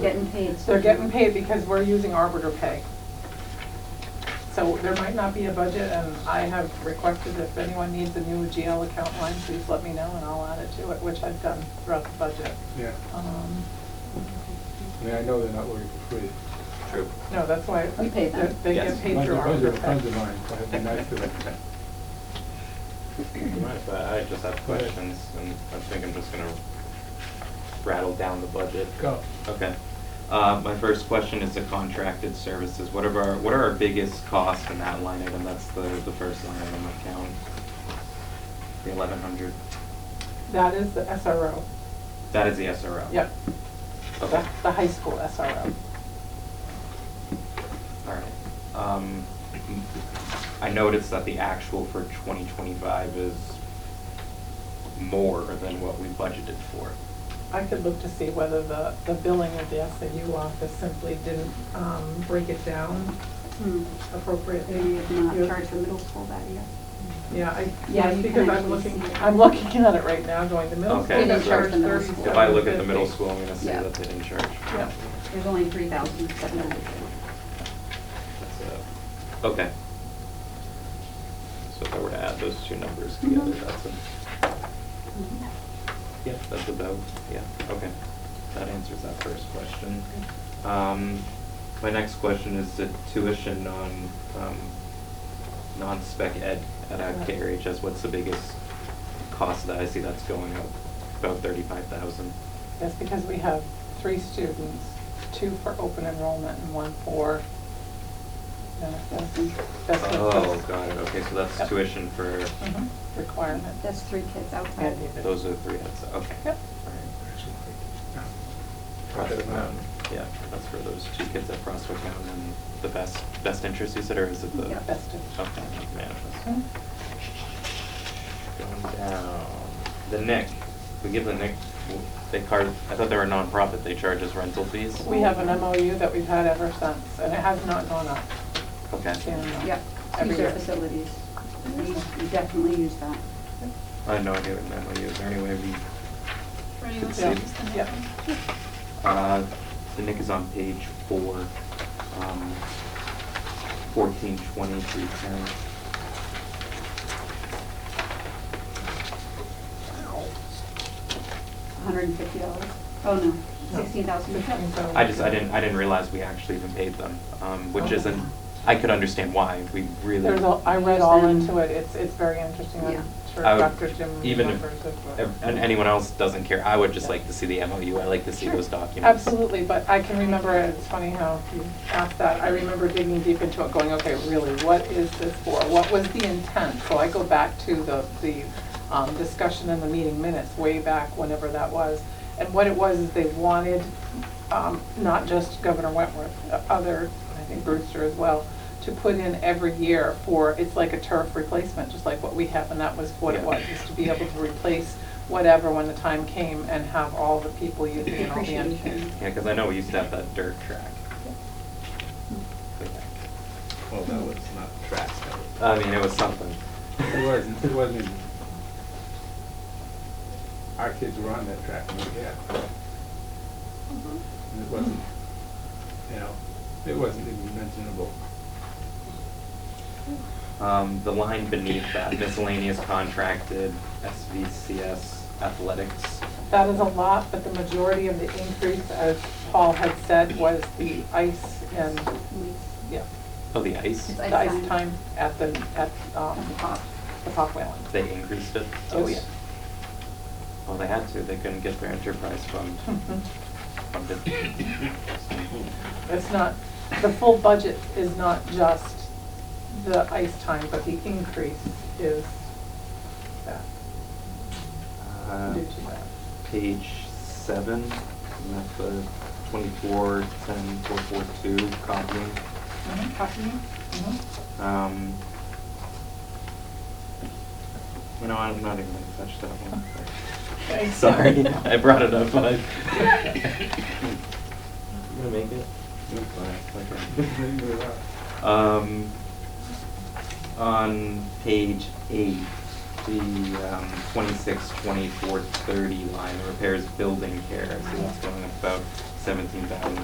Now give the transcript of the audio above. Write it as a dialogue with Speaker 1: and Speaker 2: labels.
Speaker 1: Getting paid. so-
Speaker 2: They're getting paid because we're using arbiter pay. So there might not be a budget, and I have requested if anyone needs a new GL account line, please let me know, and I'll add it to it, which I've done throughout the budget.
Speaker 3: Yeah,
Speaker 2: Um,
Speaker 3: I mean, I know they're not working for free.
Speaker 4: True.
Speaker 2: No, that's why.
Speaker 1: We pay them.
Speaker 2: They
Speaker 4: Yes.
Speaker 2: get paid
Speaker 3: Mine's a-
Speaker 2: through
Speaker 3: mine's a
Speaker 2: arbiter
Speaker 3: Friends of
Speaker 2: pay.
Speaker 3: mine, so it'd be nice to them.
Speaker 4: Right, but I just have
Speaker 3: Go ahead.
Speaker 4: questions, and I think I'm just gonna rattle down the budget.
Speaker 3: Go.
Speaker 4: Okay. Uh, my first question is the contracted services. What are our, what are our biggest costs in that line item? That's the, the first line item account. The eleven hundred.
Speaker 2: That is the SRO.
Speaker 4: That is the SRO?
Speaker 2: Yep,
Speaker 4: Okay,
Speaker 2: that's the high school SRO.
Speaker 4: all right. Um, I noticed that the actual for twenty twenty-five is more than what we budgeted for.
Speaker 2: I could look to see whether the, the billing of the SAU office simply didn't um, break it down
Speaker 1: Hmm. Maybe
Speaker 2: appropriately.
Speaker 1: you've not
Speaker 2: You-
Speaker 1: charged the middle school that year.
Speaker 2: Yeah, I,
Speaker 1: Yeah,
Speaker 2: yes,
Speaker 1: you
Speaker 2: because
Speaker 1: can
Speaker 2: I'm
Speaker 1: actually
Speaker 2: looking,
Speaker 1: see it.
Speaker 2: I'm looking at it right now, going to middle
Speaker 4: Okay,
Speaker 2: school.
Speaker 4: They
Speaker 2: they
Speaker 4: didn't charge
Speaker 2: charge
Speaker 1: the middle school.
Speaker 4: If I look at the middle
Speaker 2: 37.50.
Speaker 4: school, I'm gonna see
Speaker 1: Yeah.
Speaker 4: that they didn't charge.
Speaker 2: Yeah.
Speaker 1: There's only three thousand seven hundred.
Speaker 4: That's a- Okay. So if I were to add those two numbers together,
Speaker 1: Mhm.
Speaker 4: that's a,
Speaker 1: Mm-hmm.
Speaker 4: yeah, that's about, yeah, okay. That answers that first question. Um, my next question is the tuition on, um, non-spec ed at uh,
Speaker 2: Right.
Speaker 4: KRHS, what's the biggest cost that I see that's going up? About thirty-five thousand.
Speaker 2: That's because we have three students, two for open enrollment and one for manifest. That's what-
Speaker 4: Oh, got it, okay, so that's
Speaker 2: Yep.
Speaker 4: tuition for,
Speaker 2: Mhm, Requirement.
Speaker 1: That's three kids outside.
Speaker 2: And the-
Speaker 4: those are the three, that's, okay.
Speaker 2: Yep.
Speaker 4: All right.
Speaker 3: Cut
Speaker 4: Prospect
Speaker 3: them out.
Speaker 4: Mountain, yeah, that's for those two kids at Prospect Mountain and the best, best interest you said, or is it the?
Speaker 1: Yeah,
Speaker 2: best interest.
Speaker 4: Okay, that's manifest.
Speaker 2: Mhm.
Speaker 4: Going down, the Nick, we give the Nick, they card, I thought they were a nonprofit, they charge us rental fees?
Speaker 2: We have an MOU that we've had ever since, and it has not gone up.
Speaker 4: Okay,
Speaker 2: in,
Speaker 1: Yep,
Speaker 2: Every
Speaker 1: use their
Speaker 2: year.
Speaker 1: facilities. We we definitely use that.
Speaker 4: I had no idea what an MOU, is there any way we,
Speaker 5: Ready
Speaker 4: Could
Speaker 5: with
Speaker 4: see.
Speaker 5: that, just the next
Speaker 2: Yeah.
Speaker 5: one?
Speaker 4: uh, the Nick is on page four, um, fourteen twenty three ten.
Speaker 1: hundred and fifty dollars. Oh, no, sixteen thousand.
Speaker 2: $16,000.
Speaker 4: I just, I didn't, I didn't realize we actually even paid them, um, which
Speaker 2: Okay.
Speaker 4: isn't, I could understand why, we really.
Speaker 2: There's all, I read all into it, it's, it's very interesting,
Speaker 1: Yeah.
Speaker 2: I'm sure
Speaker 4: I would-
Speaker 2: Dr. Jim
Speaker 4: even if
Speaker 2: remembers it. but-
Speaker 4: ev- And anyone else doesn't care, I would just
Speaker 2: Yeah.
Speaker 4: like to see the MOU, I like to see
Speaker 2: Sure.
Speaker 4: those documents.
Speaker 2: Absolutely, but I can remember, it. it's funny how you asked that, I remember digging deep into it, going, okay, really, what is this for? What was the intent? So I go back to the, the um, discussion in the meeting minutes, way back whenever that was. And what it was, is they wanted, um, not just Governor Wentworth, uh, other, I think Brewster as well, to put in every year for, it's like a turf replacement, just like what we have, and that was what it
Speaker 4: Yeah.
Speaker 2: was, is to be able to replace whatever when the time came and have all the people using it, all the
Speaker 1: Depreciation.
Speaker 2: entities.
Speaker 4: Yeah, cause I know we used to have that dirt track. Way back.
Speaker 6: Well, that was not tracks, that was.
Speaker 4: I mean, it was something.
Speaker 3: It wasn't, it wasn't even. Our kids were on that track when we had. it.
Speaker 1: Mm-hmm.
Speaker 3: And it wasn't, you know, it wasn't even mentionable.
Speaker 4: Um, the line beneath that, miscellaneous contracted SVCS athletics.
Speaker 2: That is a lot, but the majority of the increase, as Paul had said, was the ice and, yeah,
Speaker 4: Oh, the ice,
Speaker 1: It's
Speaker 2: the ice
Speaker 1: Ice time.
Speaker 2: time at the, at, um,
Speaker 1: At the pop.
Speaker 2: the Pop Whalen.
Speaker 4: they increased it? Oh, yeah.
Speaker 2: Yes.
Speaker 4: Well, they had to, they couldn't get their enterprise fund
Speaker 2: Mhm.
Speaker 4: funded.
Speaker 2: It's not, the full budget is not just the ice time, but the increase is that,
Speaker 4: Uh,
Speaker 2: due to that.
Speaker 4: page seven, and that's the twenty-four, ten, four, four, two copying.
Speaker 2: Mhm,
Speaker 1: Copy?
Speaker 2: mhm.
Speaker 4: Um, you know, I'm not even gonna touch that one.
Speaker 2: Thanks.
Speaker 4: Sorry, I brought it up, but I. You gonna make it?
Speaker 3: Leave it out.
Speaker 4: Um, on page eight, the, um, twenty-six, twenty-four, thirty line, the repairs building care, so that's going up about seventeen thousand